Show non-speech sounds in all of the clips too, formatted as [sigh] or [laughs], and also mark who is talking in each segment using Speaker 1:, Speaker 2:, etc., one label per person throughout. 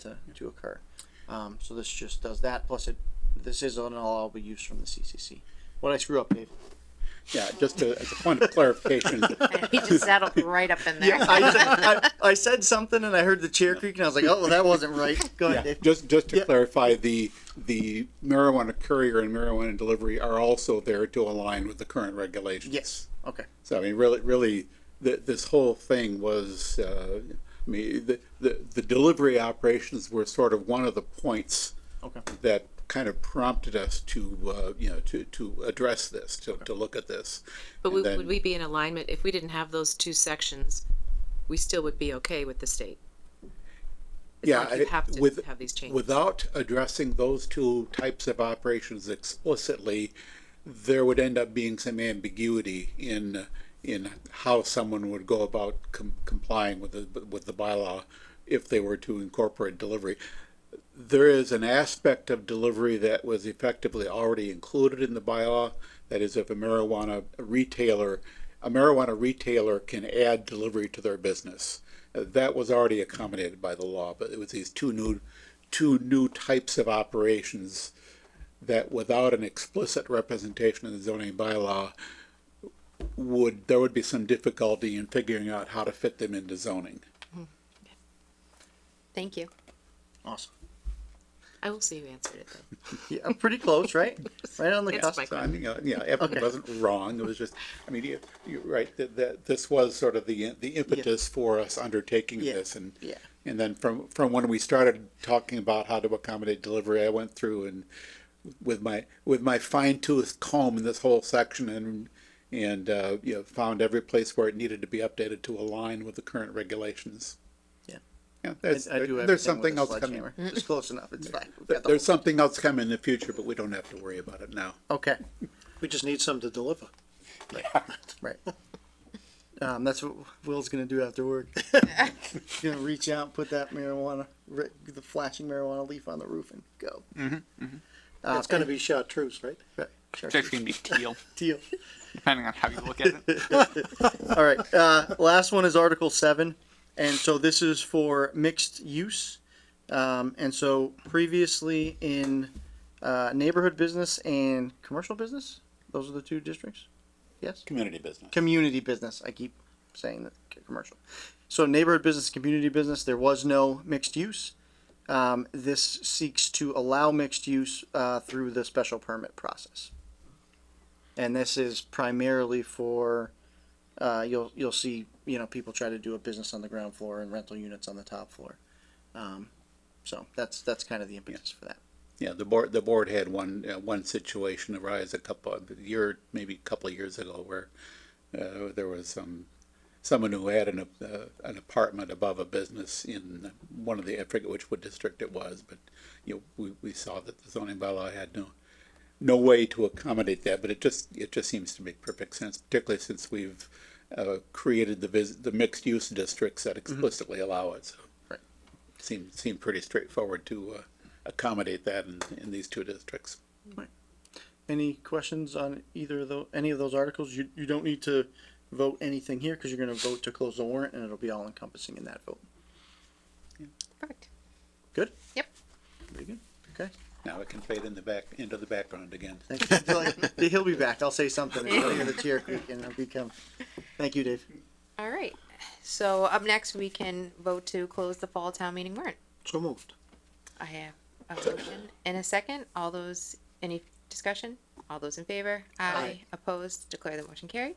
Speaker 1: to, to occur. Um, so this just does that, plus it, this is an allowable use from the CCC. What I screw up, Dave?
Speaker 2: Yeah, just to, as a point of clarification,
Speaker 1: [laughs]
Speaker 3: He just settled right up in there.
Speaker 1: I, said- I, I said something and I heard the chair creak and I was like, oh, well, that wasn't
Speaker 2: [laughs]
Speaker 1: right. Go ahead,
Speaker 2: yeah,
Speaker 1: Dave.
Speaker 2: just, just to
Speaker 1: Yeah.
Speaker 2: clarify, the, the marijuana courier and marijuana delivery are also there to align with the current regulations.
Speaker 1: Yes, okay.
Speaker 2: So I mean, really, really, th this whole thing was, uh, I mean, the, the, the delivery operations were sort of one of the points
Speaker 1: Okay.
Speaker 2: that kind of prompted us to, uh, you know, to, to address this, to, to look at this.
Speaker 4: But
Speaker 2: And
Speaker 4: would,
Speaker 2: then-
Speaker 4: would we be in alignment, if we didn't have those two sections, we still would be okay with the state? It's
Speaker 2: Yeah,
Speaker 4: not like you
Speaker 2: I-
Speaker 4: have to
Speaker 2: with-
Speaker 4: have these changes.
Speaker 2: Without addressing those two types of operations explicitly, there would end up being some ambiguity in, in how someone would go about com- complying with the, with the bylaw if they were to incorporate delivery. There is an aspect of delivery that was effectively already included in the bylaw. That is, if a marijuana retailer, a marijuana retailer can add delivery to their business. Uh, That was already accommodated by the law, but it was these two new, two new types of operations that without an explicit representation in the zoning bylaw would, there would be some difficulty in figuring out how to fit them into zoning.
Speaker 3: Thank you.
Speaker 1: Awesome.
Speaker 4: I will see who answered it though.
Speaker 1: Yeah, I'm pretty
Speaker 4: [laughs]
Speaker 1: close, right? Right on the
Speaker 4: It's
Speaker 1: cusp.
Speaker 4: my
Speaker 2: So I mean, uh, yeah, Evan wasn't wrong. It was just, I mean, you- you're right, that, that this was sort of the, the impetus for us undertaking
Speaker 1: Yeah.
Speaker 2: this and.
Speaker 1: Yeah.
Speaker 2: And then from, from when we started talking about how to accommodate delivery, I went through and with my, with my fine tooth comb in this whole section and, and, uh, you know, found every place where it needed to be updated to align with the current regulations.
Speaker 1: Yeah.
Speaker 2: Yeah,
Speaker 1: I,
Speaker 2: there's,
Speaker 1: I do
Speaker 2: there's
Speaker 1: everything with
Speaker 2: something
Speaker 1: a
Speaker 2: else coming.
Speaker 1: sledgehammer. It's close enough, it's fine. We've
Speaker 2: There-
Speaker 1: got the
Speaker 2: There's something else coming in the future, but we don't have to worry about it now.
Speaker 1: whole- Okay,
Speaker 5: We just need some to deliver.
Speaker 1: right. Um, that's what Will's gonna do after work. He's gonna reach out, put that marijuana, ri- the flashing marijuana leaf on the roof and go.
Speaker 2: mm-hmm.
Speaker 1: Uh,
Speaker 5: It's gonna be chartreuse, right?
Speaker 1: Right, sure.
Speaker 6: It's actually gonna be teal,
Speaker 1: Deal.
Speaker 6: depending on how you look at it.
Speaker 1: All right. Uh, last one is Article Seven, and so this is for mixed use. Um, and so previously in uh, neighborhood business and commercial business, those are the two districts. Yes.
Speaker 2: Community business.
Speaker 1: Community business. I keep saying that c- commercial. So neighborhood business, community business. There was no mixed use. Um, this seeks to allow mixed use uh, through the special permit process. And this is primarily for uh, you'll you'll see you know people try to do a business on the ground floor and rental units on the top floor. Um, so that's that's kind of the impetus for that.
Speaker 2: Yeah, the board, the board had one, uh, one situation arise a couple, of- a year, maybe a couple of years ago where uh, there was some, someone who had an, ap- uh, an apartment above a business in one of the, I forget which, what district it was, but, you know, we, we saw that the zoning bylaw had no, no way to accommodate that, but it just, it just seems to make perfect sense, particularly since we've uh, created the vis, the mixed-use districts that explicitly allow it, so.
Speaker 1: Right.
Speaker 2: Seemed, seemed pretty straightforward to uh, accommodate that in, in these two districts.
Speaker 1: Any questions on either of those any of those articles? You you don't need to vote anything here because you're going to vote to close the warrant and it'll be all encompassing in that vote.
Speaker 3: Perfect.
Speaker 1: Good.
Speaker 3: Yep.
Speaker 1: Very good. Okay.
Speaker 2: Now it can fade in the back, into the background again.
Speaker 1: Thank you.
Speaker 3: [laughs]
Speaker 1: He'll- He'll be back. I'll say something. And I'll hear the chair creak and I'll become. Thank you, Dave.
Speaker 3: All right. So up next, we can vote to close the fall town meeting warrant.
Speaker 5: So moved.
Speaker 3: I have a motion and a second. All those, any discussion? All those in favor? Aye. Opposed? Declare the motion carried.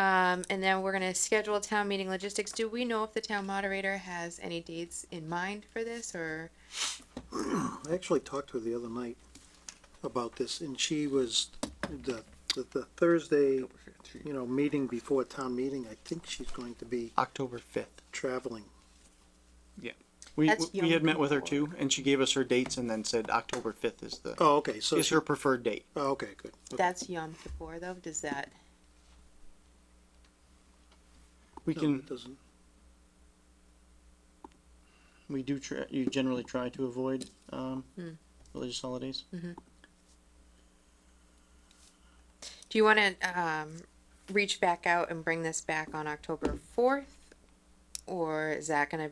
Speaker 3: Um, and then we're gonna schedule town meeting logistics. Do we know if the town moderator has any dates in mind for this or?
Speaker 5: I actually talked to her the other night about this, and she was, the, the- the Thursday,
Speaker 1: Oh,
Speaker 5: you know, meeting before town meeting, I think she's going to be
Speaker 1: October fifth.
Speaker 5: traveling.
Speaker 1: We
Speaker 3: That's
Speaker 1: we had
Speaker 3: young
Speaker 1: met with her
Speaker 3: people.
Speaker 1: too, and she gave us her dates and then said October fifth is the
Speaker 5: Oh, okay, so,
Speaker 1: is
Speaker 5: she-
Speaker 1: her preferred date.
Speaker 5: oh, okay, good.
Speaker 3: That's Yom Kippur though, does that,
Speaker 1: We
Speaker 5: No,
Speaker 1: can
Speaker 5: it doesn't-
Speaker 1: We do. Tr- you generally try to avoid um,
Speaker 3: Hmm.
Speaker 1: religious holidays.
Speaker 3: do you wanna, um, reach back out and bring this back on
Speaker 1: Uh,
Speaker 3: October fourth? Or is that gonna